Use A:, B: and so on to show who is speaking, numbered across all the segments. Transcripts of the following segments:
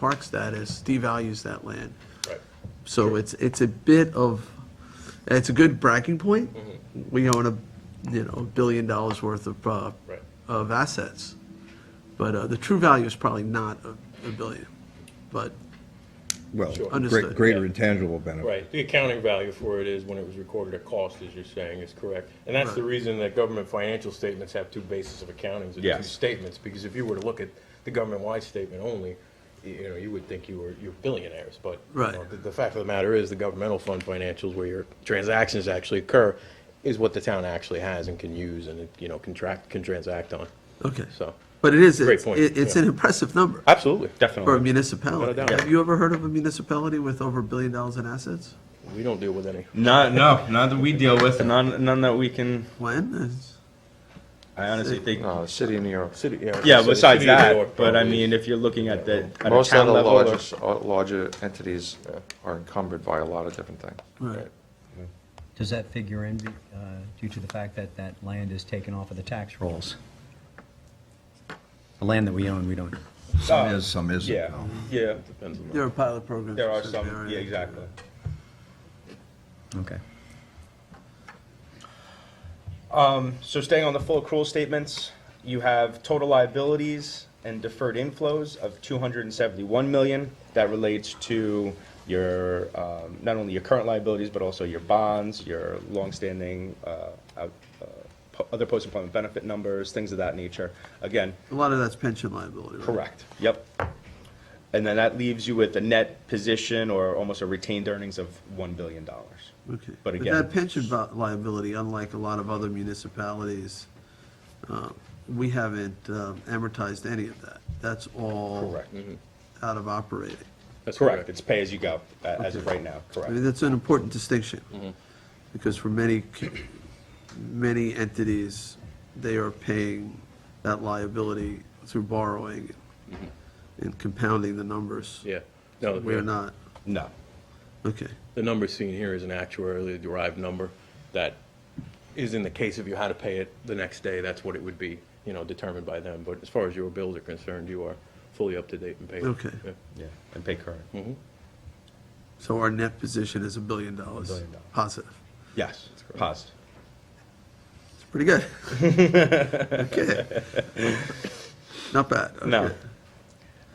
A: park status devalues that land.
B: Right.
A: So it's, it's a bit of, it's a good bragging point. We own a, you know, a billion dollars worth of, uh,
B: Right.
A: of assets. But uh, the true value is probably not a a billion, but,
C: Well,
B: Sure.
A: Understood.
C: great, greater intangible benefit.
B: Right, the accounting value for it is when it was recorded at cost, as you're saying, is correct. And that's the reason that government financial statements have two bases of accountings and two
C: Yes.
B: statements, because if you were to look at the government-wide statement only, y- you know, you would think you were, you're billionaires, but. you
A: Right.
B: know, The, the fact of the matter is, the governmental fund financials, where your transactions actually occur, is what the town actually has and can use and, you know, contract, can transact on,
A: okay.
B: so.
A: But it is,
B: Great
A: it's,
B: point,
A: it- it's
B: yeah.
A: an impressive number
B: Absolutely.
A: for a
D: Definitely.
A: municipality.
B: Without a doubt.
A: Have you ever heard of a municipality with over a billion dollars in assets?
B: We don't deal with any.
D: Not, no, not that we deal with, none, none that we can,
A: When? It's-
D: I honestly think,
E: No, Uh, the city of New York.
B: City, you know,
D: yeah,
B: the
D: besides
B: city of New York
D: that, but I
B: probably is-
D: mean, if you're looking at the, at a
E: Most of
D: town
E: the
D: level. or-
E: largest, uh, larger entities uh, are encumbered by a lot of different things.
A: Right.
F: Does that figure in uh, due to the fact that that land is taken off of the tax rolls? The land that we own, we don't,
C: Some is, some isn't.
D: Yeah,
C: though.
D: yeah,
B: Depends on the-
A: There are pilot programs.
D: there are
A: that
D: some,
A: are-
D: yeah, exactly.
F: okay.
D: Um, so staying on the full accrual statements, you have total liabilities and deferred inflows of two hundred and seventy-one million. That relates to your, um, not only your current liabilities, but also your bonds, your longstanding, uh, out- uh, po- other post-employment benefit numbers, things of that nature. Again,
A: A lot of that's pension liability. right?
D: Correct, yep. And then that leaves you with a net position or almost a retained earnings of $1 billion.
A: Okay.
D: But
A: But
D: again-
A: that pension vi- liability, unlike a lot of other municipalities, uh, we haven't um, amortized any of that. That's all.
D: Correct.
A: Out of operating.
D: That's correct, it's pay as you go, a- as of right Mm-hmm. now,
A: I mean,
D: correct.
A: that's an important distinction. Because for many, c- many entities, they are paying that liability through borrowing
D: Mm-hmm.
A: and compounding the numbers.
B: Yeah. No, yeah.
A: We're not.
D: No,
A: Okay.
B: The number seen here is an actuarially derived number that is in the case if you had to pay it the next day, that's what it would be, you know, determined by them. But as far as your bills are concerned, you are fully up to date and paid.
A: Okay.
B: Yeah.
D: yeah, and pay current,
A: So our net position is a billion dollars
D: billion dollars.
A: positive.
D: yes, positive.
A: It's pretty good. okay. Not bad.
D: No.
A: Okay.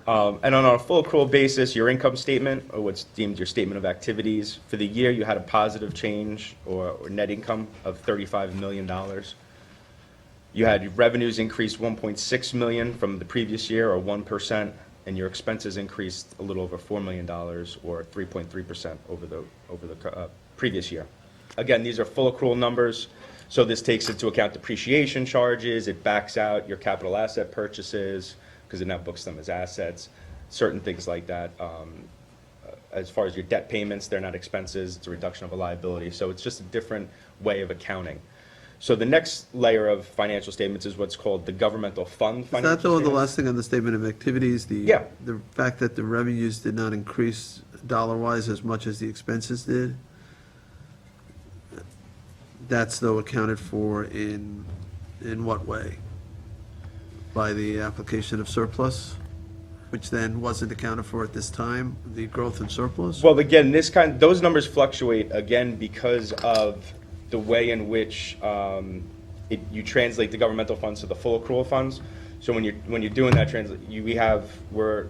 D: Um, And on a full accrual basis, your income statement, or what's deemed your statement of activities, for the year, you had a positive change or or net income of $35 million. You had your revenues increased 1.6 million from the previous year, or 1%, and your expenses increased a little over $4 million, or 3.3% over the, over the uh, previous year. Again, these are full accrual numbers, so this takes into account depreciation charges, it backs out your capital asset purchases, because it now books them as assets, certain things like that. Um, As far as your debt payments, they're not expenses, it's a reduction of a liability, so it's just a different way of accounting. So the next layer of financial statements is what's called the governmental fund
A: Is
D: financial
A: that though the
D: statements.
A: last thing on the statement of activities, the
D: Yeah.
A: the fact that the revenues did not increase dollar wise as much as the expenses did? That's though accounted for in in what way? By the application of surplus, which then wasn't accounted for at this time, the growth in surplus?
D: Well, again, this kind, those numbers fluctuate again because of the way in which um, it, you translate the governmental funds to the full accrual funds. So when you're when you're doing that translate, you, we have we're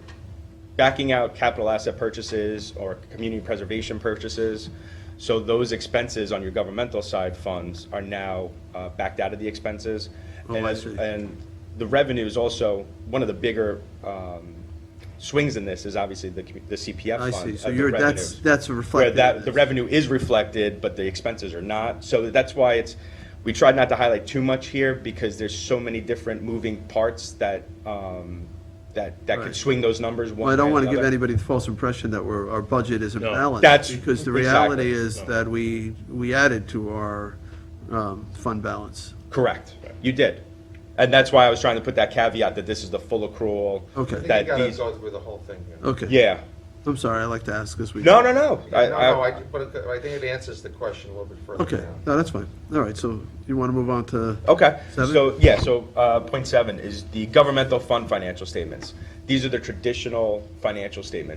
D: backing out capital asset purchases or community preservation purchases. So those expenses on your governmental side funds are now uh, backed out of the expenses.
A: Oh,
D: and
A: I
D: as-
A: see.
D: And the revenue is also one of the bigger. Um, Swings in this is obviously the, commu- the CPF
A: I
D: fund
A: see, so
D: of the
A: you're, that's,
D: revenues.
A: that's
D: Where
A: reflected.
D: that, the revenue is reflected, but the expenses are not. So that's why it's, we tried not to highlight too much here because there's so many different moving parts that, um, that, that
A: Right.
D: could swing those numbers one
A: Well, I don't
D: way or
A: want to
D: the
A: give
D: other.
A: anybody the false impression that we're, our budget isn't
B: No.
A: balanced.
D: That's-
A: Because the
D: exactly.
A: reality is
B: No.
A: that we, we added to our um, fund balance.
D: Correct. You did. And that's why I was trying to put that caveat that this is the full accrual.
A: Okay. I think you
D: That these,
E: through the whole thing here.
A: Okay.
D: yeah.
A: I'm sorry, I like to ask this. we-
D: No, no, no. I-
E: No, no,
D: I-
E: I, but it- I think it answers the question a little bit further
A: Okay,
E: down.
A: no, that's fine. All right, so you want to move on to,
D: Okay,
A: Seven?
D: so, yeah, so, uh, point seven is the governmental fund financial statements. These are the traditional financial statements.